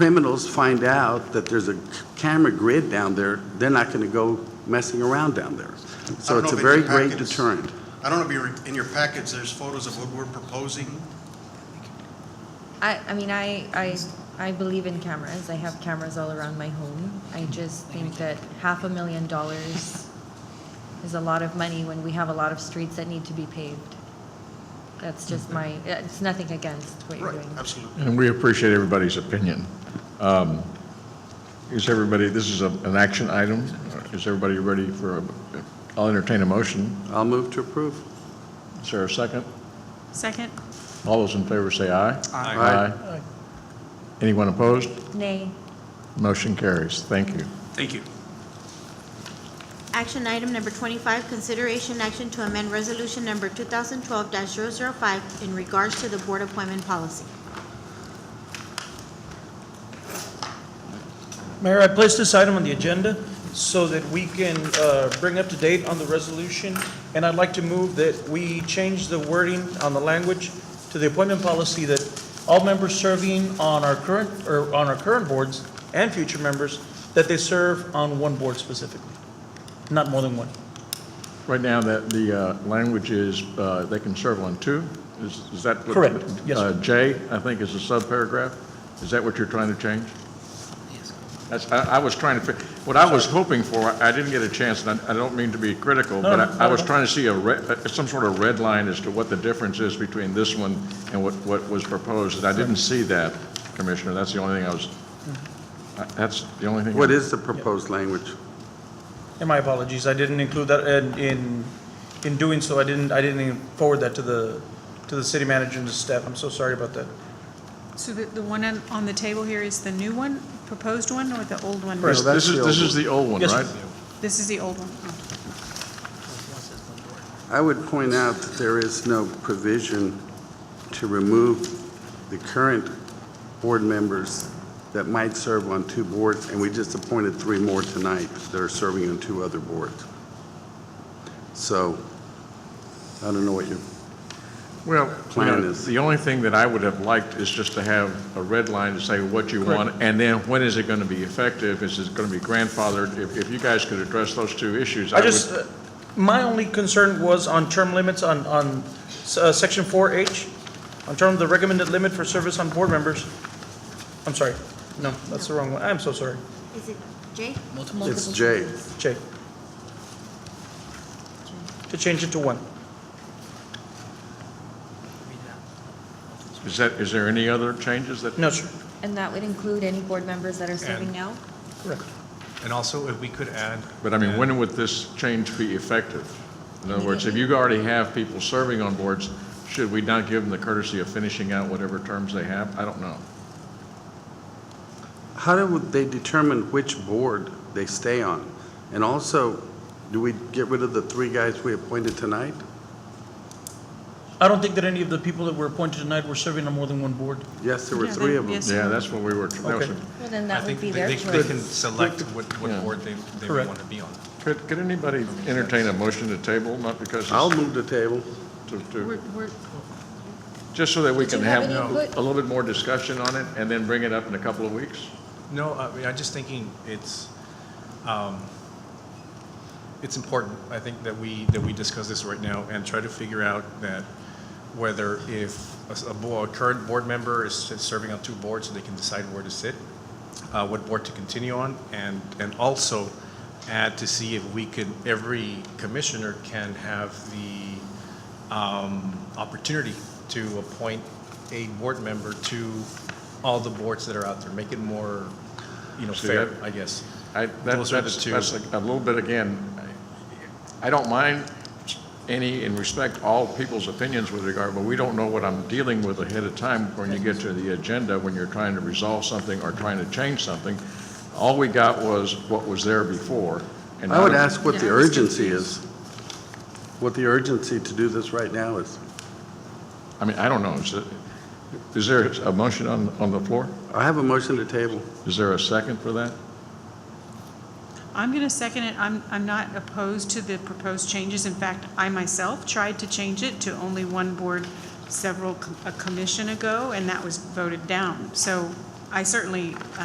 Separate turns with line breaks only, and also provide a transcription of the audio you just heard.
criminals find out that there's a camera grid down there, they're not going to go messing around down there. So
I don't
it's a
know if
very
in your
great
packets-
deterrent.
I don't know if you're, in your package, there's photos of what we're proposing.
I, I mean, I, I, I believe in cameras. I have cameras all around my home. I just think that half a million dollars is a lot of money when we have a lot of streets that need to be paved. That's just
Mm-hmm.
my, it's nothing against what you're
Right,
doing.
absolutely.
And we appreciate everybody's opinion. Um, Is everybody, this is a- an action item. Is everybody ready for, a? I'll entertain a motion.
I'll move to approve.
Is there a second?
Second?
All those in favor say aye.
Aye.
Anyone opposed?
Nay,
Motion carries. Thank you.
Thank you.
Action item number twenty-five, consideration action to amend resolution number two thousand twelve 5 in regards to the board appointment policy.
Mayor, I placed this item on the agenda so that we can uh, bring up to date on the resolution, and I'd like to move that we change the wording on the language to the appointment policy that all members serving on our current, or on our current boards and future members, that they serve on one board specifically, not more than one.
Right now, that the uh, language is, uh, they can serve on two? Is is that what?
Correct. Yes,
Uh,
sir.
J, I think, is a subparagraph. Is that what you're trying to change? Yes. That's, I I was trying to, fi- what I was hoping for, I I didn't get a chance, and I I don't mean to be critical,
No,
but
no,
I I
not
was
at all.
trying to see a, red- uh, some sort of red line as to what the difference is between this one and what what was proposed, and I didn't see that, Commissioner. That's the only thing I was,
Mm-hmm.
I- that's the only thing. I-
What is the proposed language?
And my apologies, I didn't include that, and in, in doing so, I didn't, I didn't even forward that to the, to the city manager and the staff. I'm so sorry about that.
So the, the one on, on the table here is the new one, proposed one, or the old one?
This
No, that's
this is,
the
this
old
is the old one,
Yes, sir.
right?
This is the old one.
I would point out that there is no provision to remove the current board members that might serve on two boards, and we just appointed three more tonight that are serving on two other boards. So I don't know what your
Well, you
plan
know,
is-
the only thing that I would have liked is just to have a red line to say what you want, and then when is it going to be effective? Is it going to be grandfathered? If, if you guys could address those two issues, I
I
would.
just, uh, my only concern was on term limits on, on s- uh, section 4H, on term of the recommended limit for service on board members. I'm sorry, no, that's the wrong one, I'm so sorry,
Is it Jay?
It's J.
Jay. To change it to one.
Is that, is there any other changes that?
No, sir,
and that would include any board members that are serving now?
correct.
And also, if we could add.
But I mean, when would this change be effective? In other words, if you already have people serving on boards, should we not give them the courtesy of finishing out whatever terms they have? I don't know.
How do they determine which board they stay on? And also, do we get rid of the three guys we appointed tonight?
I don't think that any of the people that were appointed tonight were serving on more than one board.
Yes, there were
Yeah,
three
they-
of them.
yes.
Yeah, that's what we were, that was,
Okay.
a-
Well, then
I
that would
think
be
they-
their
they- They can
choice.
select what,
Yeah.
what board they, they
Correct.
want to be on.
could, could anybody entertain a motion to table, not because it's.
I'll move the table.
to- to-
We're, we're,
Just so that we
Did you
can
have
have
any input?
a little bit more discussion on it and then bring it up in a couple of weeks?
No, I mean, I'm just thinking it's, um, it's important. I think that we, that we discuss this right now and try to figure out that whether if a s- a bo- a current board member is s- serving on two boards, so they can decide where to sit, uh, what board to continue on, and, and also add to see if we could, every commissioner can have the um, opportunity to appoint a board member to all the boards that are out there, make it more, you know,
See,
fair,
that-
I guess.
I, that-
Those are the
that's,
two.
that's a a little bit, again, I I don't mind any, and respect all people's opinions with regard, but we don't know what I'm dealing with ahead of time when you get to the agenda, when you're trying to resolve something or trying to change something. All we got was what was there before. and
I would
now-
ask what the
Yeah, I was
urgency is, what the urgency to do this right now is.
I mean, I don't know. Is it- Is there a motion on, on the floor?
I have a motion to table.
Is there a second for that?
I'm gonna second it, I'm, I'm not opposed to the proposed changes. In fact, I myself tried to change it to only one board several, co- a commission ago, and that was voted down. So I certainly